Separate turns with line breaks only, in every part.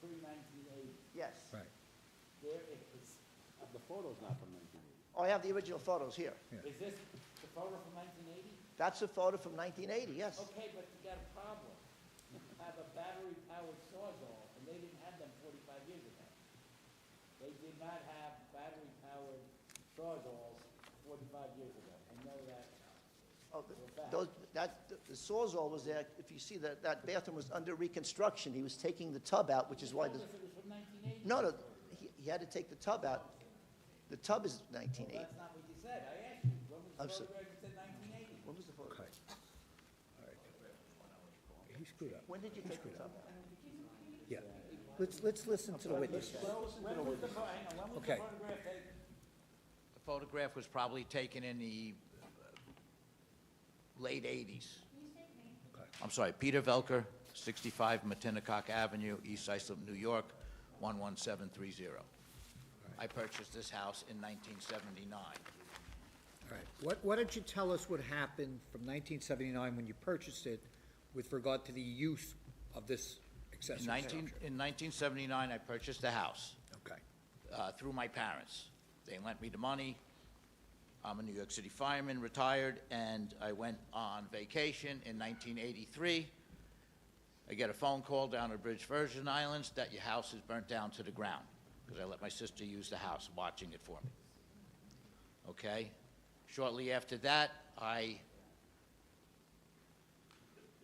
pre-nineteen eighty.
yes.
right,
There is,
Uh, The photo's not from 1980.
Oh, I have the original photos here.
Yeah.
is this the photo from nineteen eighty?
That's a photo from 1980, yes.
Okay, but you got a problem. You have a battery-powered sawzall, and they didn't have them forty-five years ago. They did not have battery-powered sawzalls forty-five years ago. I know that.
Oh, th- Those, that, the Sawzall was there, if you see that, that bathroom was under reconstruction, he was taking the tub out, which is why the,
Unless it was from nineteen eighty.
no, no, he, he had to take the tub out. The tub is nineteen eighty.
That's not what you said. I asked you, when was
I'm
the
so-
photograph? You said nineteen eighty.
When was the photo?
okay. All right. He screwed up,
When did you take the tub out?
yeah. Let's, let's listen to the witness.
When was the, pho- hang on, when was the
Okay.
photograph taken?
The photograph was probably taken in the uh, late 80s. I'm sorry, Peter Velker, 65 Matinacock Avenue, East Islip, New York, 11730. I purchased this house in 1979.
All right. What, why don't you tell us what happened from 1979 when you purchased it with regard to the use of this accessory
In 19
structure?
in 1979, I purchased the house.
Okay.
uh, through my parents. They lent me the money. I'm a New York City fireman, retired, and I went on vacation in 1983. I get a phone call down at British Virgin Islands that your house is burnt down to the ground because I let my sister use the house, watching it for me. Okay? Shortly after that, I,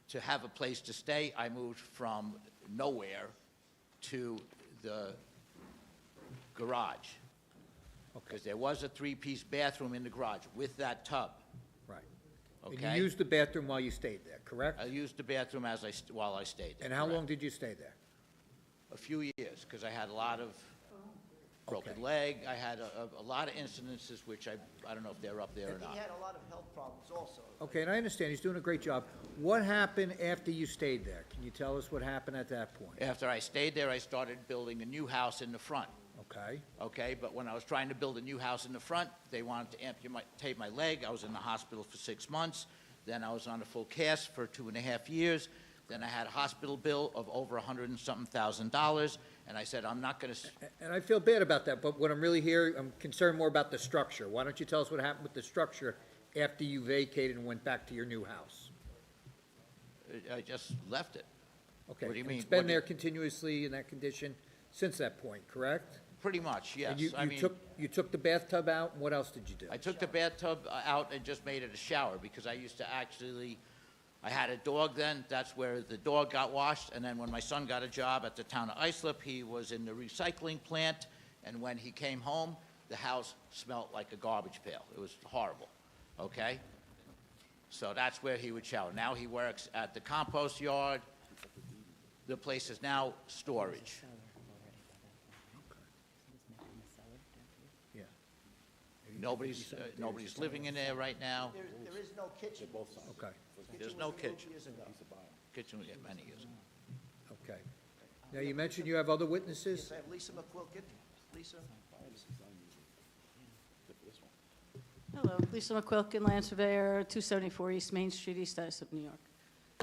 to have a place to stay, I moved from nowhere to the garage.
Okay,
Because there was a three-piece bathroom in the garage with that tub.
right. And
Okay.
you used the bathroom while you stayed there, correct?
I used the bathroom as I, st- while I stayed there.
And how long
correct.
did you stay there?
A few years, because I had a lot of
Okay.
broken leg, I had a, a- a lot of incidences, which I, I don't know if they're up there or
And
not.
he had a lot of health problems also.
Okay, and I understand, he's doing a great job. What happened after you stayed there? Can you tell us what happened at that point?
After I stayed there, I started building a new house in the front,
Okay,
okay? But when I was trying to build a new house in the front, they wanted to amputate my leg, I was in the hospital for six months, then I was on a full cast for two and a half years, then I had a hospital bill of over a hundred and something thousand dollars, and I said, I'm not gonna s-
A- and I feel bad about that, but what I'm really here, I'm concerned more about the structure. Why don't you tell us what happened with the structure after you vacated and went back to your new house?
I- I just left it.
Okay,
What do you
and
mean?
It's
What
been
do
there
you-
continuously in that condition since that point, correct?
Pretty much, yes.
And you,
I
you
mean,
took, you took the bathtub out, and what else did you do?
I took the bathtub uh, out and just made it a shower because I used to actually, I had a dog then. That's where the dog got washed. And then when my son got a job at the town of Islip, he was in the recycling plant. And when he came home, the house smelled like a garbage pail. It was horrible. Okay? So that's where he would shower. Now he works at the compost yard. The place is now storage.
Yeah,
Nobody's, uh, nobody's living in there right now.
There, there is no kitchen.
okay,
Kitchen
There's
was
no
removed
kitchen.
years ago.
Kitchen was there many years ago.
okay. Now, you mentioned you have other
Yes,
witnesses?
I have Lisa McQuilkin. Lisa?
Hello, Lisa McQuilkin, land surveyor, 274 East Main Street, East Islip, New York.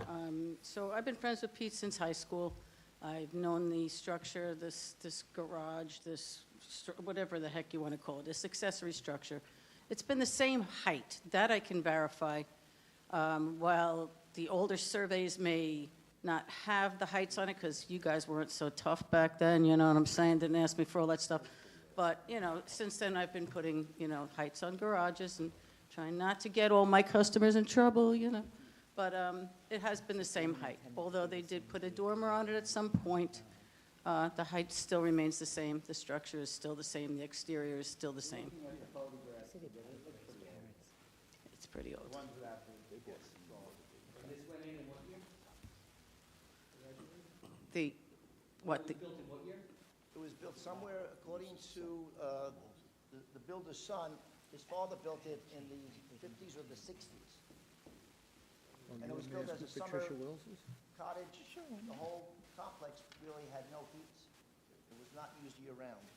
Um, So I've been friends with Pete since high school. I've known the structure, this, this garage, this, stru- whatever the heck you want to call it, this accessory structure. It's been the same height, that I can verify. Um, While the older surveys may not have the heights on it, because you guys weren't so tough back then, you know what I'm saying? Didn't ask me for all that stuff. But, you know, since then, I've been putting, you know, heights on garages and trying not to get all my customers in trouble, you know? But um, it has been the same height, although they did put a dormer on it at some point. uh, The height still remains the same, the structure is still the same, the exterior is still the same. It's pretty old. The, what, the,
It was built somewhere, according to uh, the- the builder's son, his father built it in the 50s or the 60s. And it was
Oh, You
built
want me to
as a
ask who Patricia
summer
Wills is?
cottage. The whole complex really had no heat. It was not used year-round.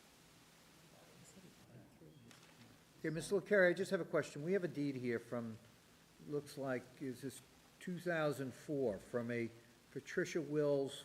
Okay, Mr. LaCarrie, I just have a question. We have a deed here from, looks like, is this 2004, from a Patricia Wills